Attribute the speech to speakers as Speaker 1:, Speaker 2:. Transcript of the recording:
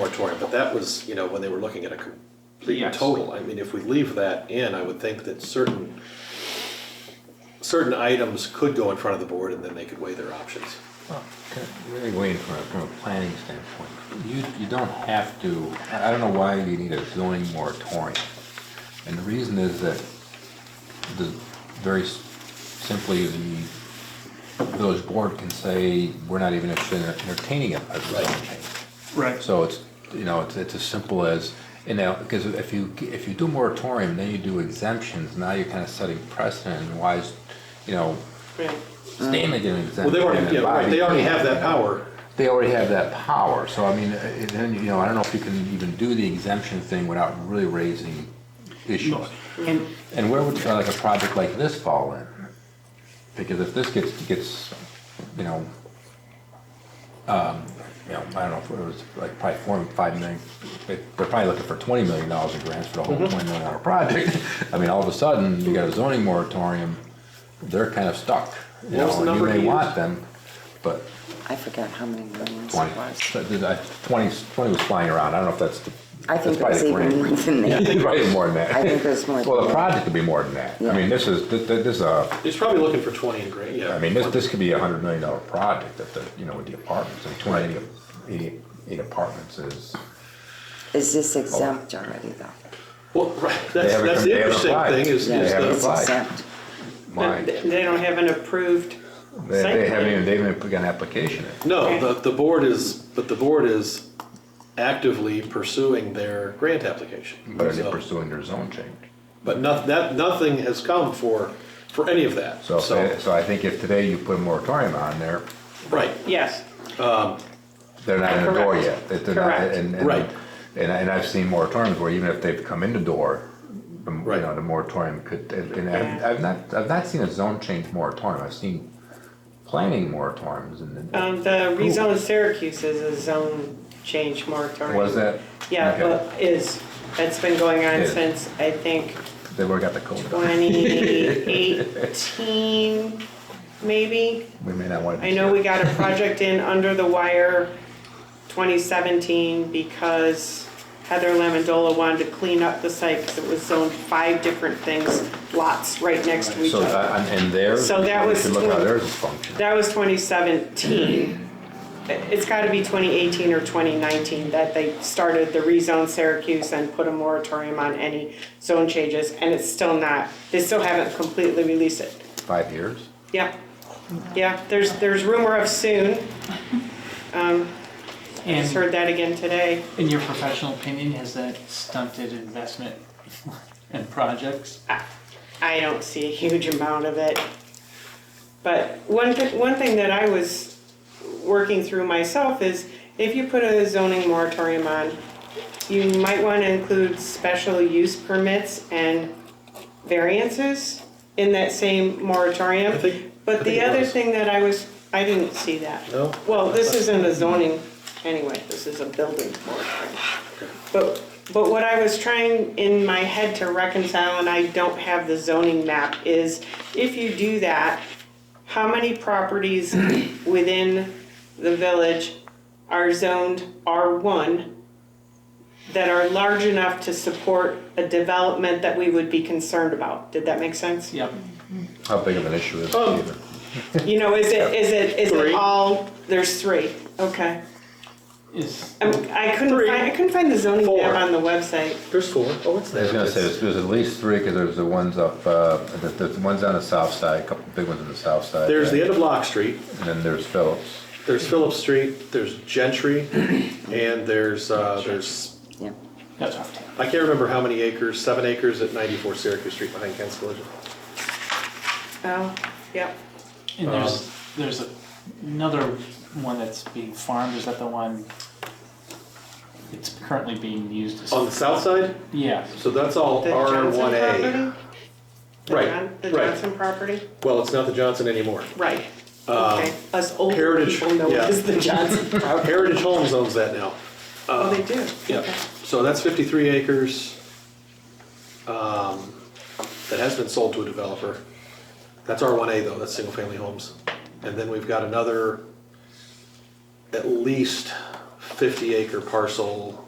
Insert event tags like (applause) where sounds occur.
Speaker 1: moratorium, but that was, you know, when they were looking at a complete
Speaker 2: Yes.
Speaker 1: total. I mean, if we leave that in, I would think that certain, certain items could go in front of the board and then they could weigh their options.
Speaker 3: Well, Really waiting for, from a planning standpoint, you, you don't have to, I I don't know why you need a zoning moratorium. And the reason is that the, very s- simply, the village board can say, we're not even interested in entertaining a a zoning change.
Speaker 4: Right.
Speaker 3: So it's, you know, it's, it's as simple as, you know, because if you, if you do moratorium, then you do exemptions, now you're kind of setting precedent, and why is, you know, Stanley did an exemption.
Speaker 1: Well, they
Speaker 3: and
Speaker 1: already, yeah, right,
Speaker 3: Bobby
Speaker 1: they already have
Speaker 3: Kane,
Speaker 1: that
Speaker 3: you know.
Speaker 1: power.
Speaker 3: They already have that power, so I mean, uh, it- then, you know, I don't know if you can even do the exemption thing without really raising issues.
Speaker 4: And
Speaker 3: And where would, uh, like, a project like this fall in? Because if this gets, gets, you know, um, you know, I don't know, if it was like probably four, five million, they- they're probably looking for twenty million dollars in grants for the
Speaker 1: Mm-hmm.
Speaker 3: whole twenty million dollar project. (laughs) I mean, all of a sudden, you got a zoning moratorium, they're kind of stuck. You
Speaker 1: What was
Speaker 3: know,
Speaker 1: the
Speaker 3: and
Speaker 1: number
Speaker 3: You
Speaker 1: he
Speaker 3: may want
Speaker 1: used?
Speaker 3: them, but
Speaker 5: I forget how many millions
Speaker 3: twenty,
Speaker 5: it was.
Speaker 3: so did I- twenty, twenty was flying around, I don't know if that's the.
Speaker 5: I think it
Speaker 3: that's
Speaker 5: was
Speaker 3: probably the
Speaker 5: even
Speaker 3: grant.
Speaker 5: more than
Speaker 3: I
Speaker 5: that.
Speaker 3: think (laughs) probably more than that.
Speaker 5: I think it was more than
Speaker 3: Well, the
Speaker 5: that.
Speaker 3: project could be more than that. I mean, this is, th- th- this is a,
Speaker 1: He's probably looking for twenty in grant, yeah.
Speaker 3: I mean, this, this could be a hundred million dollar project at the, you know, with the apartments, I mean, 280 80 80 apartments is.
Speaker 5: Is this
Speaker 3: Oh.
Speaker 5: exempt already though?
Speaker 1: Well, right,
Speaker 3: They
Speaker 1: that's,
Speaker 3: haven't
Speaker 1: that's
Speaker 3: come- they
Speaker 1: the
Speaker 3: haven't
Speaker 1: interesting
Speaker 3: applied.
Speaker 1: thing is, is
Speaker 3: They haven't
Speaker 1: the-
Speaker 5: It's
Speaker 3: applied.
Speaker 5: exempt.
Speaker 3: My,
Speaker 4: They-
Speaker 3: they
Speaker 4: they don't have an approved
Speaker 3: they
Speaker 4: site
Speaker 3: haven't even,
Speaker 4: plan.
Speaker 3: they haven't even put an application in.
Speaker 1: no,
Speaker 4: Okay.
Speaker 1: the, the board is, but the board is actively pursuing their grant application.
Speaker 3: But they're
Speaker 1: So-
Speaker 3: pursuing their zone change.
Speaker 1: But no, that, nothing has come for, for any of that,
Speaker 3: So,
Speaker 1: so,
Speaker 3: if they- so I think if today you put a moratorium on there,
Speaker 1: right.
Speaker 4: Yes,
Speaker 3: they're not in the door
Speaker 4: Correct.
Speaker 3: yet. They- they're not-
Speaker 4: Correct.
Speaker 3: and- and-
Speaker 1: Right.
Speaker 3: And, I- and I've seen moratoriums where even if they've come in the door, the- you
Speaker 1: Right.
Speaker 3: know, the moratorium could, and and I've,
Speaker 4: Yeah.
Speaker 3: I've not, I've not seen a zone change moratorium. I've seen planning moratoriums and. then-
Speaker 4: um, the rezone of Syracuse is a zone change moratorium.
Speaker 3: Was that?
Speaker 4: Yeah,
Speaker 3: Okay.
Speaker 4: well, is, that's been going on
Speaker 3: Is.
Speaker 4: since, I think,
Speaker 3: They would've got the code.
Speaker 4: twenty eighteen, maybe?
Speaker 3: We may not want to.
Speaker 4: I know we got a project in under the wire 2017 because Heather Lamondola wanted to clean up the site because it was zoned five different things, lots right next to each
Speaker 3: So,
Speaker 4: other.
Speaker 3: uh, and and theirs.
Speaker 4: So that
Speaker 3: we
Speaker 4: was
Speaker 3: should Look how
Speaker 4: twen-
Speaker 3: theirs is functioning.
Speaker 4: That was 2017. It's got to be 2018 or 2019 that they started the rezone Syracuse and put a moratorium on any zone changes, and it's still not, they still haven't completely released it.
Speaker 3: Five years?
Speaker 4: Yeah, yeah, there's, there's rumor of soon. Just
Speaker 6: And
Speaker 4: heard that again today.
Speaker 6: in your professional opinion, has that stunted investment (laughs) and projects?
Speaker 4: I don't see a huge amount of it. But one, thi- one thing that I was working through myself is if you put a zoning moratorium on, you might want to include special use permits and variances in that same moratorium.
Speaker 1: I think- I think
Speaker 4: But the
Speaker 1: it
Speaker 4: other
Speaker 1: was.
Speaker 4: thing that I was, I didn't see that.
Speaker 1: No?
Speaker 4: Well, this isn't a zoning anyway, this is a building moratorium. But, but what I was trying in my head to reconcile, and I don't have the zoning map, is if you do that, how many properties within the village are zoned R1 that are large enough to support a development that we would be concerned about? Did that make sense?
Speaker 6: Yep.
Speaker 3: How big of an issue is it
Speaker 4: Oh.
Speaker 3: even?
Speaker 4: You know, is it, is it, is
Speaker 1: Three.
Speaker 4: it all, there's three, okay.
Speaker 6: Is,
Speaker 4: I'm- I couldn't
Speaker 1: Three.
Speaker 4: find, I couldn't find the zoning
Speaker 1: Four.
Speaker 4: map on the website.
Speaker 1: There's four. Oh, it's
Speaker 3: I
Speaker 1: there.
Speaker 3: was gonna say,
Speaker 1: It's-
Speaker 3: there's, there's at least three, because there's the ones up, uh, the, the ones on the south side, a couple big ones on the south side.
Speaker 1: There's the end of Lock Street,
Speaker 3: And then there's Phillips.
Speaker 1: there's Phillips Street, there's
Speaker 3: (clears throat)
Speaker 1: Gentry, and there's, uh, there's,
Speaker 5: Yeah.
Speaker 6: that's off
Speaker 1: I can't remember how many acres, seven acres at ninety-four Syracuse Street behind Kent's Collision.
Speaker 4: Oh, yep.
Speaker 6: And there's, there's a- another one that's being farmed, is that the one? It's currently being used as.
Speaker 1: On the south side,
Speaker 6: Yeah,
Speaker 1: so that's all
Speaker 4: The
Speaker 1: R
Speaker 4: Johnson
Speaker 1: one A.
Speaker 4: property? The
Speaker 1: Right,
Speaker 4: John- The
Speaker 1: right.
Speaker 4: Johnson property?
Speaker 1: Well, it's not the Johnson anymore.
Speaker 4: Right. Okay, us old
Speaker 1: Uh, Heritage,
Speaker 4: people know
Speaker 1: yeah.
Speaker 4: it is the Johnson.
Speaker 1: Heritage Homes owns that now.
Speaker 4: Oh, they do?
Speaker 1: Uh, Yeah,
Speaker 4: Okay.
Speaker 1: so that's fifty-three acres, um, that has been sold to a developer. That's R one A though, that's single-family homes. And then we've got another, at least fifty acre parcel